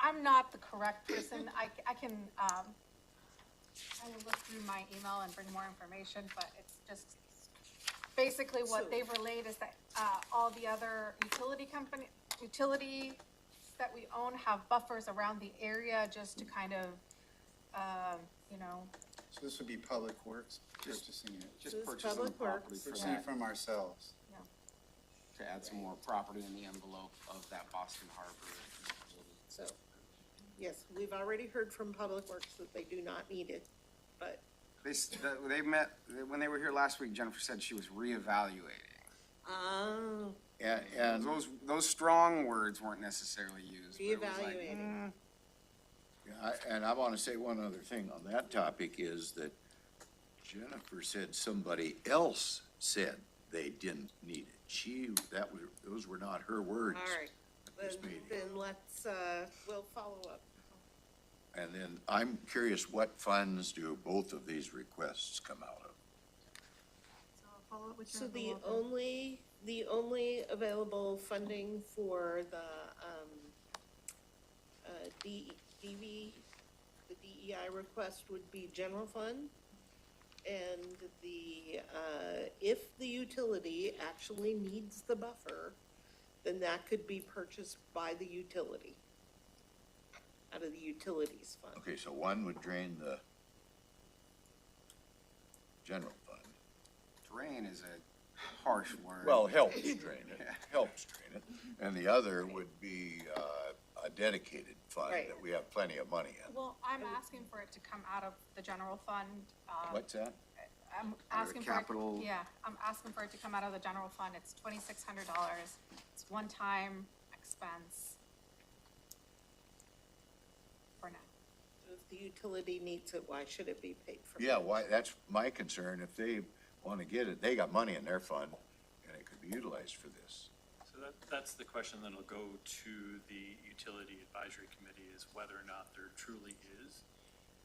I'm not the correct person. I, I can, um, I will look through my email and bring more information, but it's just basically So- what they've relayed is that, uh, all the other utility company, utility that we own have buffers around the area just to kind of, um, you know, So this would be Public Works purchasing it, So Just it's purchasing the Public property Works. for purchasing that, it from ourselves. you know. to add some more property in the envelope of that Boston Harbor. So, yes, we've already heard from Public Works that they do not need it, but They, s- the- they met, when they were here last week, Jennifer said she was reevaluating. Oh, And, And and those, those strong words weren't necessarily used. but it was like, reevaluating. I- And I want to say one other thing on that topic is that Jennifer said somebody else said they didn't need it. She, that was, those were not her All words. right, then, This meeting. then let's, uh, we'll follow up. And then I'm curious, what funds do both of these requests come out of? So the only, the only available funding for the, um, uh, D, DV, the DEI request would be general fund. And the, uh, if the utility actually needs the buffer, then that could be purchased by the utility. Out of the utilities fund. Okay, so one would drain the general fund. Drain is a harsh word. Well, helps drain it, helps drain it. And the other would be uh, a dedicated fund Right. that we have plenty of money in. Well, I'm asking for it to come out of the general fund, um, What's that? I'm Under asking for. it- capital- Yeah, I'm asking for it to come out of the general fund. It's twenty-six hundred dollars. It's one-time expense. For now. If the utility needs it, why should it be paid for? Yeah, why, that's my concern. If they want to get it, they got money in their fund and it could be utilized for this. So that, that's the question that'll go to the utility advisory committee is whether or not there truly is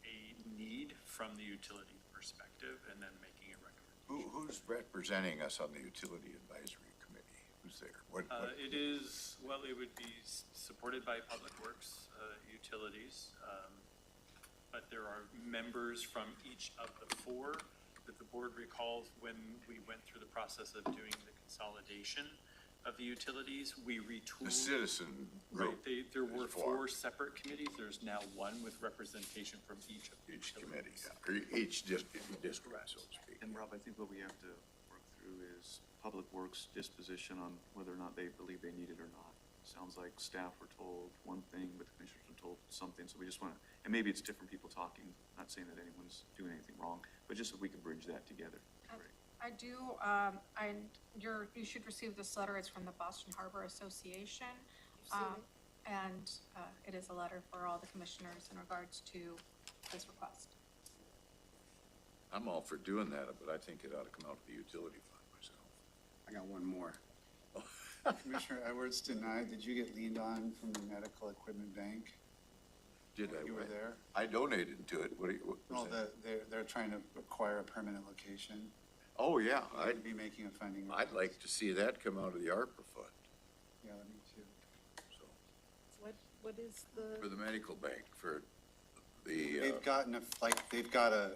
a need from the utility perspective and then making a recommendation. Who, who's representing us on the utility advisory committee? Who's there? What, Uh, what, it is, well, it would be s- supported by Public Works, uh, utilities. um, But there are members from each of the four that the board recalls when we went through the process of doing the consolidation of the utilities, we retooled. the citizen Right, group, they, there were There's four. four separate committees, there's now one with representation from each of the each committee, utilities. yeah, or each district, district, so to speak. And Rob, I think what we have to work through is Public Works disposition on whether or not they believe they need it or not. Sounds like staff were told one thing, but the commissioners were told something, so we just wanna, and maybe it's different people talking, not saying that anyone's doing anything wrong, but just if we can bridge that together. it'd be great. I do, um, and you're, you should receive this letter. It's from the Boston Harbor Association. Um, and, uh, it is a letter for all the commissioners in regards to this request. I'm all for doing that, but I think it ought to come out of the utility fund myself. I got one more. Commissioner Edwards denied, did you get leaned on from the Medical Equipment Bank? Did I? You were what? there? Oh, I donated to it. What do you, what was Well, that? the, they're, they're trying to acquire a permanent location. Oh, yeah, I'd, I'd be making a funding. I'd like to see that come out of the ARPA fund, Yeah, let me too. so. What, what is For the, the medical bank, for the, uh, They've gotten a, like, they've got a,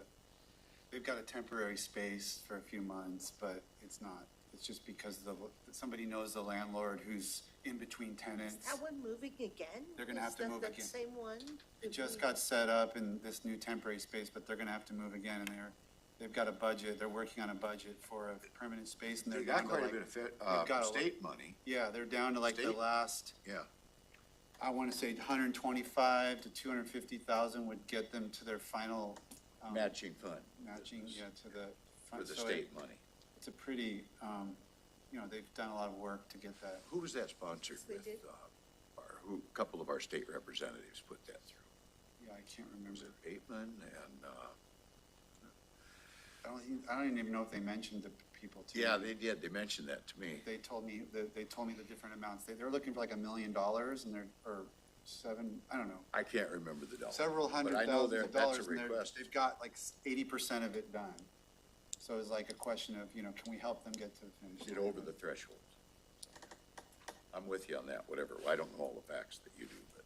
they've got a temporary space for a few months, but it's not. It's just because the, somebody knows the landlord who's in between is tenants. that one moving again? They're gonna have to Is that move that again. Same one? Mm-hmm. It just got set up in this new temporary space, but they're gonna have to move again and they're, they've got a budget, they're working on a budget for a permanent space and they're they got down to quite a like. bit of, fe- they've uh, got a- state money, Yeah, they're down to like the State? last, yeah. I wanna say hundred and twenty-five to two hundred and fifty thousand would get them to their final. um, Matching fund. Matching, yeah, to the. For fund. the So it- state money. It's a pretty, um, you know, they've done a lot of work to get that. Who was that sponsored Yes, they with, did. uh, our, who, a couple of our state representatives put that through? Yeah, I can't Was remember. it Bateman and, uh, I don't, even- I don't even know if they mentioned the people to. yeah, me. they did, they mentioned that to me. They told me, they, they told me the different amounts. They, they're looking for like a million dollars and they're, or seven, I don't know, I can't remember the dollar. several but I hundred know thousand there- of dollars. That's a and they're- request. They've got like eighty percent of it done. So it's like a question of, you know, can we help them get to the finish? Get line? over the threshold. I'm with you on that, whatever. I don't know all the facts that you do, but